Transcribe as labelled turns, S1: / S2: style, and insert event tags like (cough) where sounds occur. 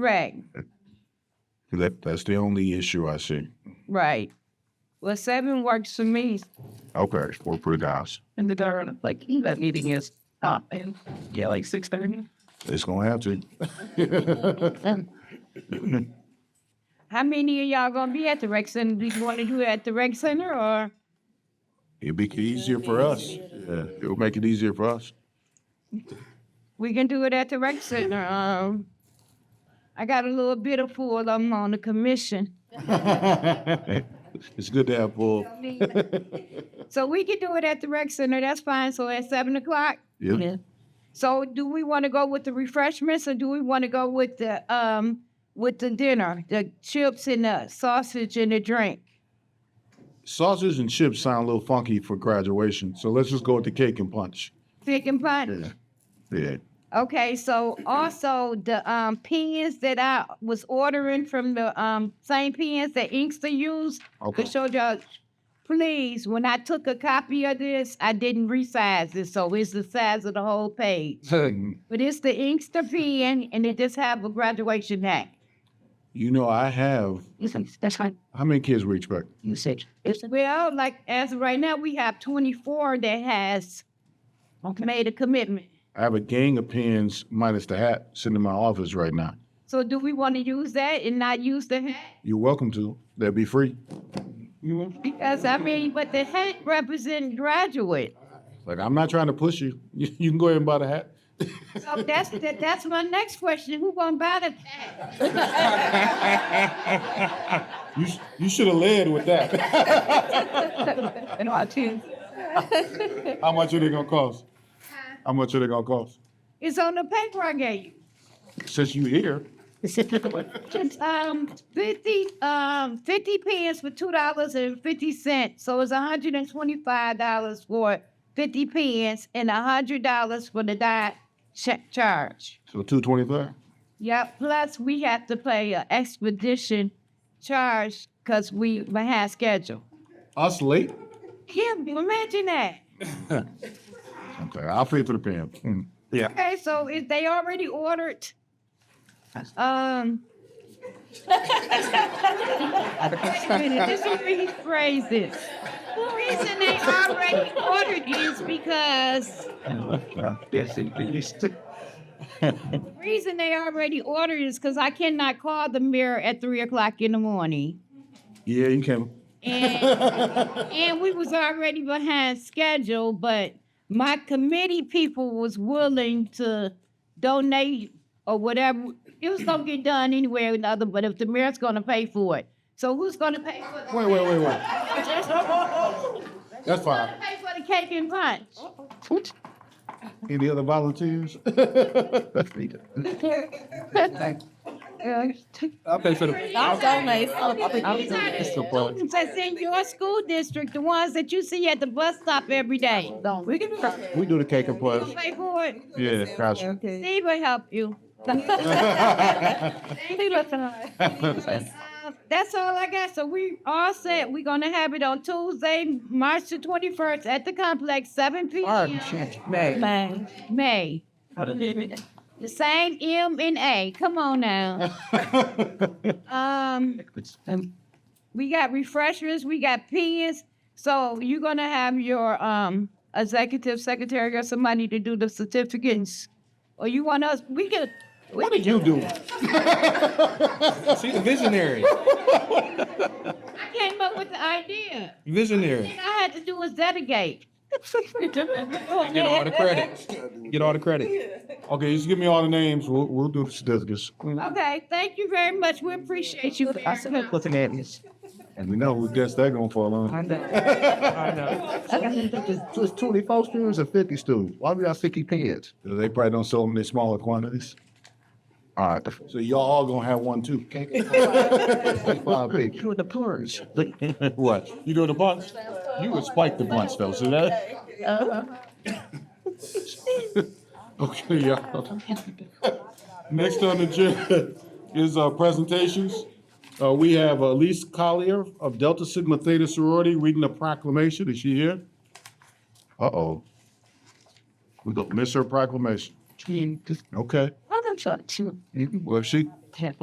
S1: Right,
S2: That, that's the only issue I see.
S1: right. Well, seven works for me.
S2: Okay, it's four per guys.
S3: And the darn, like, that meeting is up and, yeah, like six thirty.
S2: It's gonna have to.
S1: How many of y'all gonna be at the rec center? Do you want to do it at the rec center or?
S2: It'll make it easier for us. Yeah, it'll make it easier for (laughs) us.
S1: We can do it at the rec center. Um, I got a little bit of pool. of them on the commission.
S2: It's good to have full.
S1: So we can do it at the rec center. That's fine. So at seven o'clock.
S2: Yeah.
S1: So do we want to go with the refreshments or do we want to go with the, um, with the dinner, the chips and the sausage and the drink?
S2: Sausage and chips sound a little funky for graduation, so let's just go with the cake and punch.
S1: Thick and punch?
S2: Yeah.
S1: Okay, so also the um pens that I was ordering from the um same pens that Inkster used, I
S2: Okay.
S1: showed y'all, please, when I took a copy of this, I didn't resize it, so it's the size of the whole page.
S2: Mm-hmm.
S1: But it's the Inkster pen and it just have a graduation hat.
S2: You know, I have,
S3: That's fine.
S2: how many kids we expect?
S3: You said, it's
S1: Well, like as of right now, we have twenty-four that has
S3: okay. (laughs)
S1: made a commitment.
S2: I have a gang of pins minus the hat sitting in my office right now.
S1: So do we want to use that and not use the hat?
S2: You're welcome to. They'll be free.
S1: Because I mean, but the hat represent graduate.
S2: Like, I'm not trying to push you. (laughs) You, you can go ahead and buy the hat.
S1: So that's that, that's my next question. Who gonna buy the hat?
S2: You, sh- you should have led with that. (laughs)
S3: And I too.
S2: How much are they gonna cost? How much are they gonna cost?
S1: It's on the paper I gave you.
S2: Since you here,
S1: Just um fifty um fifty pence for two dollars and fifty cents. So it's hundred and twenty five dollars for fifty pence and hundred dollars for the diet check charge.
S2: so two twenty-five.
S1: Yep. Plus we have to pay an expedition charge because we had schedule.
S2: Us late?
S1: Yeah, imagine that.
S2: Okay, I'll pay for the pen. Hmm. Yeah.
S1: Okay, so if they already ordered, um. Wait a minute, just rephrase this. The reason they already ordered is because, the reason they already ordered is because I cannot call the mayor at three o'clock in the morning.
S2: Yeah, you can.
S1: And, and we was already behind schedule, but my committee people was willing to donate or whatever. It was gonna get done anyway or another, but if the mayor's gonna pay for it. So who's gonna pay for the?
S2: Wait, wait, wait, wait. That's
S1: Gonna
S2: fine.
S1: pay for the cake and punch?
S2: Any other volunteers? (laughs)
S1: That's in your school district, the ones that you see at the bus stop every day.
S3: We can do that.
S2: We do the cake and
S1: Who
S2: punch.
S1: Pay for it.
S2: Yeah, gotcha.
S3: Okay.
S1: Steve will help you. Uh, (laughs) That's all I got. So we all set. We're gonna have it on Tuesday, March the twenty-first at the complex, seven P M.
S3: May.
S1: May. The same M and A. Come on
S2: (laughs)
S1: now. Um, we got refreshments, we got pens. So you're gonna have your um executive secretary or somebody to do the certificates. Or you want us, we could, we
S2: What did (laughs) you do? (laughs)
S4: She's a visionary.
S1: I came up with the idea.
S4: Visionary.
S1: Thing I had to do was delegate.
S4: Get all the credit. Get all the credit.
S2: Okay, just give me all the names. We'll, we'll do the certificates.
S1: Okay, thank you very much. We appreciate you.
S3: I said, what's an address?
S2: And we know who guess they're gonna fall on.
S5: It's twenty-four students or fifty students? Why we got fifty kids?
S2: They probably don't sell them in smaller quantities.
S5: All right,
S2: So y'all all gonna have one too. (laughs)
S5: five people. Who are the poorest?
S2: What? You doing the bunch? You would spike the bunch though, see that? (laughs) Okay, y'all. Next on the agenda is uh, presentations. Uh, We have Elise Collier of Delta Sigma Theta Sorority reading a proclamation. Is she here? Uh-oh. We gonna miss her proclamation. Okay.
S3: I'm not sure.
S2: Well, if she,
S3: ten.